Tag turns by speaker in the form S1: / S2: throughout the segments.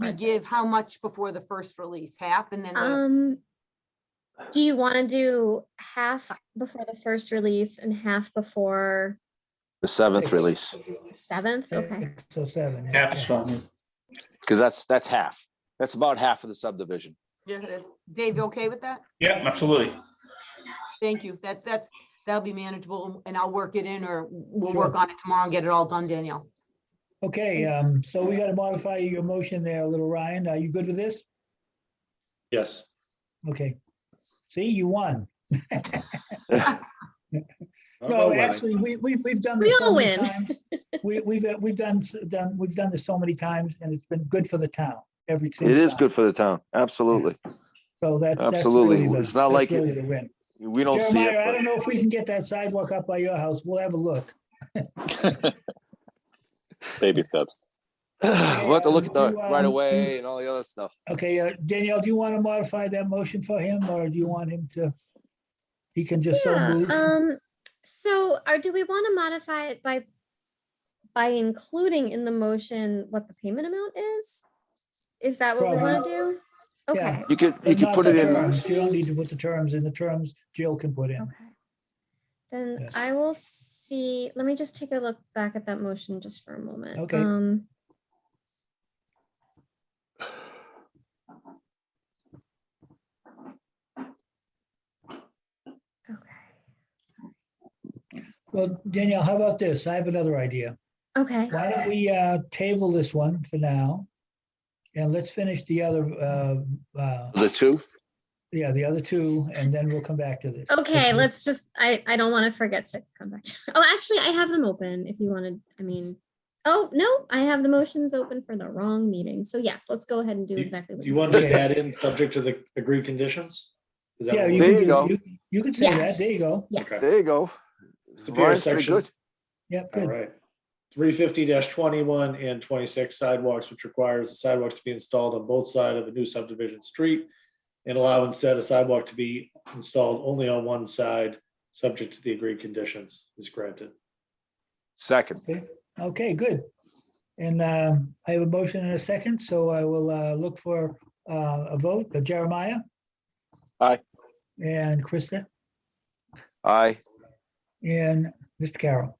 S1: we give how much before the first release? Half and then the-
S2: Um, do you want to do half
S3: Uh,
S2: before the first release and half before
S4: The seventh release,
S2: seventh? Okay.
S3: Six oh seven.
S5: Yeah, that's fine.
S4: because that's, that's half. That's about half of the subdivision.
S1: Yeah, it is. Dave, you okay with that?
S5: Yep, absolutely.
S1: Thank you. That, that's, that'll be manageable and I'll work it in or we'll
S3: Sure.
S1: work on it tomorrow and get it all done, Danielle.
S3: Okay, um, so we gotta modify your motion there, little Ryan. Are you good with this?
S6: Yes.
S3: Okay. See, you won.
S6: I'll go
S3: No,
S6: with it.
S3: actually, we, we've, we've done
S2: We
S3: this so
S2: all
S3: many
S2: win.
S3: times. We, we've, uh, we've done, s- done, we've done this so many times and it's been good for the town every. single
S4: It is
S3: time.
S4: good for the town, absolutely.
S3: So that's. that's
S4: Absolutely.
S3: really the-
S4: It's not
S3: that's
S4: like it-
S3: really the win.
S4: We don't see
S3: Jeremiah, I don't
S4: it,
S3: know if we can get that sidewalk up by your house. We'll have a look.
S7: Baby steps.
S4: but we'll have to look at the
S3: You, um,
S4: right away and all the other stuff.
S3: Okay, uh, Danielle, do you want to modify that motion for him or do you want him to? He can just so
S2: Yeah,
S3: move.
S2: um, so are, do we want to modify it by by including in the motion what the payment amount is? Is that what we want to do?
S3: Yeah.
S2: Okay.
S4: You could, you
S3: but
S4: could
S3: not
S4: put
S3: the
S4: it in,
S3: terms. You don't need to put the terms in. The terms Jill can put in.
S2: Okay. Then
S3: Yes.
S2: I will see, let me just take a look back at that motion just for a moment.
S3: Okay.
S2: Um, Okay,
S3: Well, Danielle, how about this? I have another idea.
S2: okay,
S3: Why don't we uh, table this one for now? And let's finish the other, uh, uh,
S4: the two,
S3: yeah, the other two, and then we'll come back to this.
S2: okay,
S6: Mm-hmm.
S2: let's just, I, I don't want to forget to come back. to- Oh, actually, I have them open if you wanted, I mean, oh, no, I have the motions open for the wrong meeting. So yes, let's go ahead and do
S6: You-
S2: exactly.
S6: Do
S2: what
S6: you
S2: said.
S6: want to just add in, subject to the agreed conditions? Is that
S3: Yeah,
S6: what
S3: you
S4: There
S3: can
S4: you
S3: do-
S4: go.
S3: you- You could say that.
S2: Yes.
S3: There you go.
S2: Yes.
S6: Okay.
S4: there you go.
S6: Superior
S4: Ryan's pretty
S6: section.
S4: good.
S3: Yep,
S6: All
S3: good.
S6: right. Three fifty twenty-one and twenty-six sidewalks, which requires the sidewalks to be installed on both sides of a new subdivision street. And allow instead a sidewalk to be installed only on one side, subject to the agreed conditions is granted.
S4: Second,
S3: Okay, good. And um, I have a motion and a second, so I will uh, look for uh, a vote. Uh, Jeremiah?
S7: Aye.
S3: And Krista?
S4: aye,
S3: And Mr. Carroll?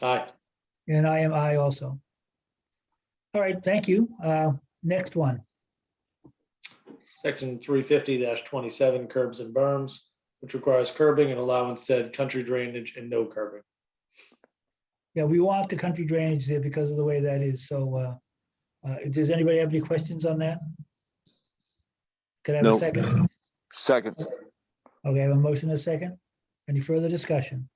S6: Aye.
S3: And I am I also. All right, thank you. Uh, Next one.
S6: Section three fifty twenty-seven curbs and berms, which requires curbing and allow instead country drainage and no curbing.
S3: Yeah, we want the country drainage there because of the way that is, so uh, uh, does anybody have any questions on that? Could I have a
S4: No.
S3: second?
S4: second,
S3: Okay, I have a motion and a second. Any further discussion?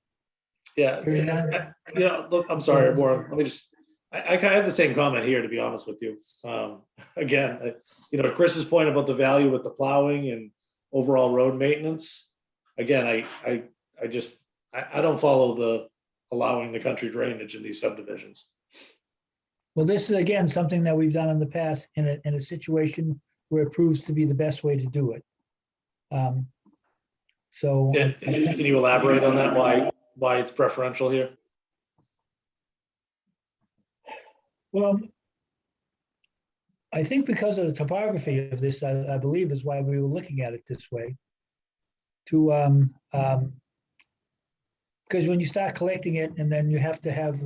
S6: Yeah,
S3: Hearing none.
S6: yeah, I- yeah, look, I'm sorry, Warren, let me just, I, I kind of have the same comment here, to be honest with you. Um, again, I- you know, Chris's point about the value with the plowing and overall road maintenance. Again, I, I, I just, I, I don't follow the allowing the country drainage in these subdivisions.
S3: Well, this is again, something that we've done in the past in a, in a situation where it proves to be the best way to do it. Um, So
S6: And and can you elaborate on that, why, why it's preferential here?
S3: Well, I think because of the topography of this, I, I believe is why we were looking at it this way. To, um, um, because when you start collecting it and then you have to have,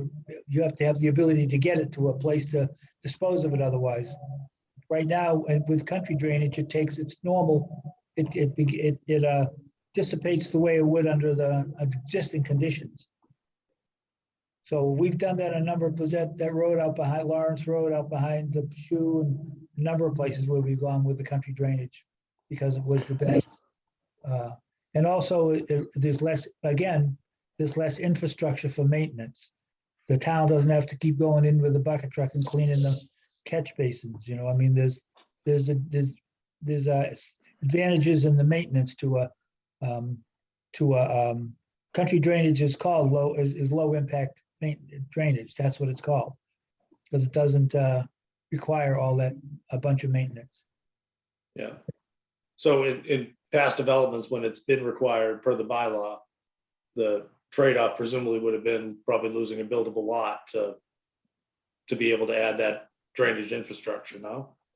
S3: you have to have the ability to get it to a place to dispose of it otherwise. Right now, and with country drainage, it takes its normal, it, it, be- it, it uh, dissipates the way it would under the existing conditions. So we've done that a number of, that, that road out behind Lawrence Road, out behind the shoe and a number of places where we've gone with the country drainage because it was the best. Uh, And also, it- there's less, again, there's less infrastructure for maintenance. The town doesn't have to keep going in with a bucket truck and cleaning the catch basins, you know, I mean, there's, there's, a there's, there's uh, advantages in the maintenance to a, um, to a, um, country drainage is called low, is, is low impact main- drainage, that's what it's called. Because it doesn't uh, require all that, a bunch of maintenance.
S6: Yeah. So in, in past developments, when it's been required per the bylaw, the trade-off presumably would have been probably losing a buildable lot to, to be able to add that drainage infrastructure now.